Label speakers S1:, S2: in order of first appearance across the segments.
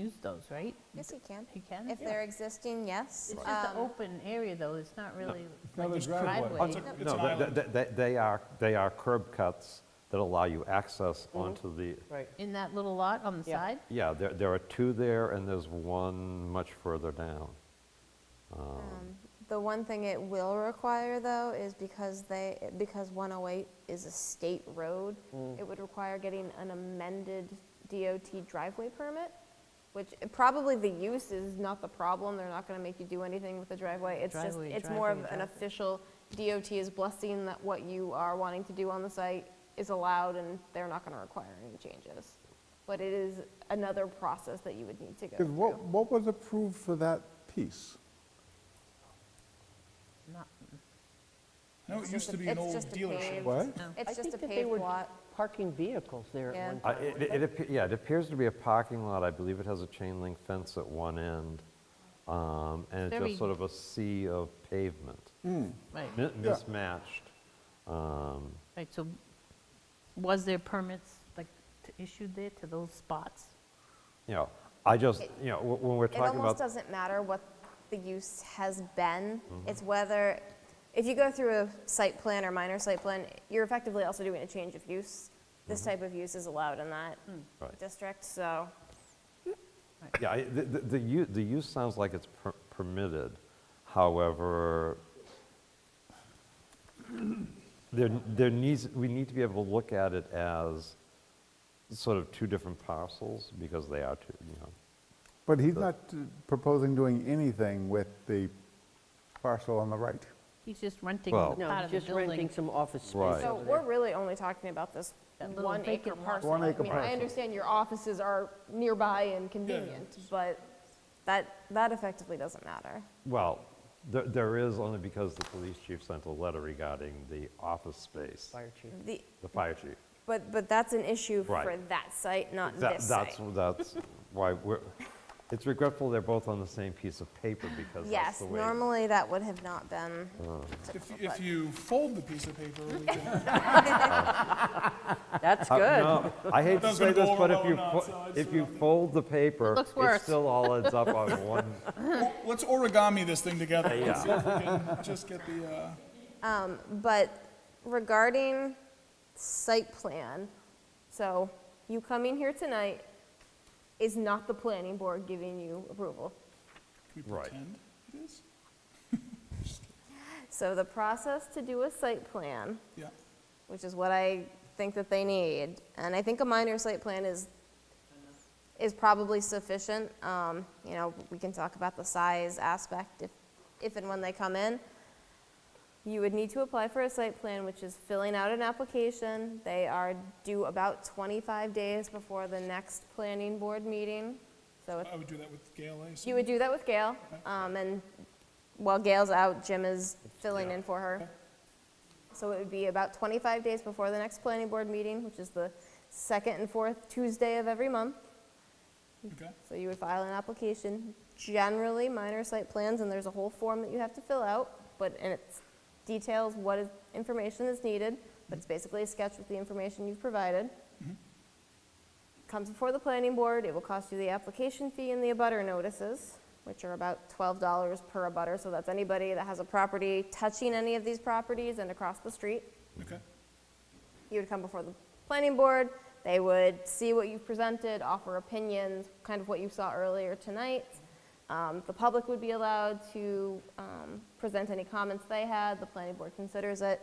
S1: use those, right?
S2: Yes, you can.
S1: You can?
S2: If they're existing, yes.
S1: It's just an
S2: Um,
S1: open area, though, it's not really
S3: not
S1: like
S3: a
S1: a
S3: driveway.
S1: driveway.
S4: Oh, It's an
S5: No, th-
S4: island.
S5: th- th- they are, they are curb cuts that allow you access
S4: Mm-hmm.
S5: onto the,
S6: Right.
S1: In that little lot on the
S6: Yeah.
S1: side?
S5: yeah, there there are two there, and there's one much further down.
S2: The one thing it will require, though, is because they, because 108 is a state road,
S3: Mm.
S2: it would require getting an amended DOT driveway permit, which probably the use is not the problem, they're not gonna make you do anything with the driveway. It's just,
S1: Driveway,
S2: it's more of
S1: driveway,
S2: an
S1: driveway.
S2: official, DOT is blessing that what you are wanting to do on the site is allowed, and they're not gonna require any changes. But it is another process that you would need to go
S3: Because
S2: through.
S3: what, what was approved for that piece?
S1: Not-
S4: No, it
S2: It's
S4: used
S2: just
S4: to
S2: a-
S4: be an
S2: it's
S4: old
S2: just a
S4: dealership.
S2: paved-
S3: What?
S2: It's
S6: I
S2: just a
S6: think that they
S2: paved
S6: were
S2: lot.
S6: Parking vehicles there
S2: Yeah.
S6: at one
S5: Uh,
S6: time.
S5: it- It, it appe- yeah, it appears to be a parking lot, I believe it has a chain link fence at one end, um, and it's
S1: Very-
S5: just sort of a sea of pavement,
S1: Right,
S2: Mm-hmm.
S5: Mi- mismatched. Um,
S1: right, so was there permits, like, t- issued there to those spots?
S5: You know, I just, you know, wh- when we're
S2: It
S5: talking
S2: almost
S5: about,
S2: doesn't matter what the use has been. It's whether, if you go through a site plan or minor site plan, you're effectively also doing a change of use. This type of use is allowed in that
S5: Right.
S2: district, so.
S5: yeah, I- the, the- the u- the use sounds like it's per- permitted, however, there, there needs, we need to be able to look at it as sort of two different parcels, because they are two, you know.
S3: But he's not uh, proposing doing anything with the parcel on the right.
S1: He's just renting
S5: Well-
S1: part
S5: No,
S6: No,
S1: of the
S6: just
S1: building.
S6: renting some office space
S5: Right.
S2: So
S6: over
S2: we're
S6: there.
S2: really only talking about this
S1: That little
S2: one acre
S1: vacant lot.
S2: parcel.
S3: One
S2: I
S3: acre
S2: mean, I
S3: parcel.
S2: understand your offices are nearby and convenient, but that, that effectively doesn't matter.
S5: Well, there, there is only because the police chief sent a letter regarding the office space,
S6: Fire chief.
S2: The,
S5: the fire chief.
S2: but, but that's an issue for
S5: Right.
S2: that site, not
S5: That-
S2: this site.
S5: That's, that's why we're, it's regretful they're both on the same piece of paper because that's
S2: Yes,
S5: the way. Hmm.
S2: normally that would have not been.
S4: If, if you fold the piece of paper, we can-
S6: That's
S5: Uh,
S6: good.
S5: no, I hate to
S4: That's
S5: say
S4: gonna go
S5: this,
S4: over
S5: but
S4: well
S5: if you,
S4: or not,
S5: fo-
S4: so it's
S5: if you
S4: nothing.
S5: fold the paper,
S1: looks
S5: it
S1: worse.
S5: still all ends up on one.
S4: let's origami this thing together.
S5: Yeah.
S4: Let's see if we can just get the, uh,
S2: But regarding site plan, so you coming here tonight is not the planning board giving you approval.
S4: can we
S5: Right.
S4: pretend it is?
S2: So the process to do a site plan,
S4: Yeah,
S2: which is what I think that they need, and I think a minor site plan is, is probably sufficient. Um, You know, we can talk about the size aspect if, if and when they come in. You would need to apply for a site plan, which is filling out an application. They are due about 25 days before the next planning board meeting. So
S4: I would do that with Gail Ace.
S2: you would do that with Gail, um, and while Gail's out, Jim is filling in for her. So it would be about 25 days before the next planning board meeting, which is the second and fourth Tuesday of every month.
S4: Okay,
S2: So you would file an application, generally minor site plans, and there's a whole form that you have to fill out, but, and it details what is, information is needed, but it's basically a sketch with the information you've provided. Comes before the planning board, it will cost you the application fee and the abutter notices, which are about twelve dollars per abutter, so that's anybody that has a property touching any of these properties and across the street
S4: okay.
S2: you would come before the planning board, they would see what you presented, offer opinions, kind of what you saw earlier tonight. Um, The public would be allowed to um, present any comments they had, the planning board considers it.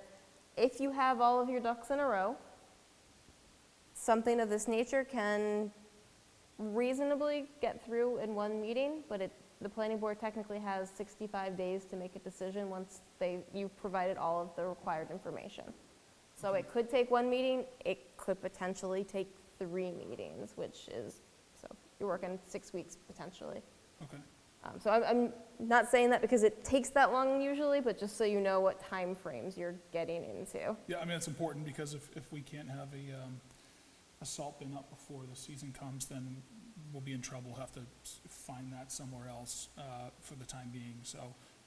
S2: If you have all of your ducks in a row, something of this nature can reasonably get through in one meeting, but it, the planning board technically has 65 days to make a decision once they, you've provided all of the required information. So it could take one meeting, it could potentially take three meetings, which is, so you're working six weeks potentially.
S4: Okay.
S2: Um, So I'm, I'm not saying that because it takes that long usually, but just so you know what timeframes you're getting into.
S4: Yeah, I mean, it's important because if, if we can't have a, um, a salt bin up before the season comes, then we'll be in trouble. We'll Have to s- find that somewhere else, uh, for the time being, so,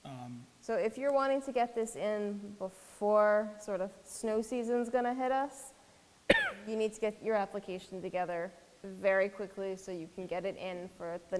S4: um,
S2: So if you're wanting to get this in before sort of snow season's gonna hit us, you need to get your application together very quickly so you can get it in for the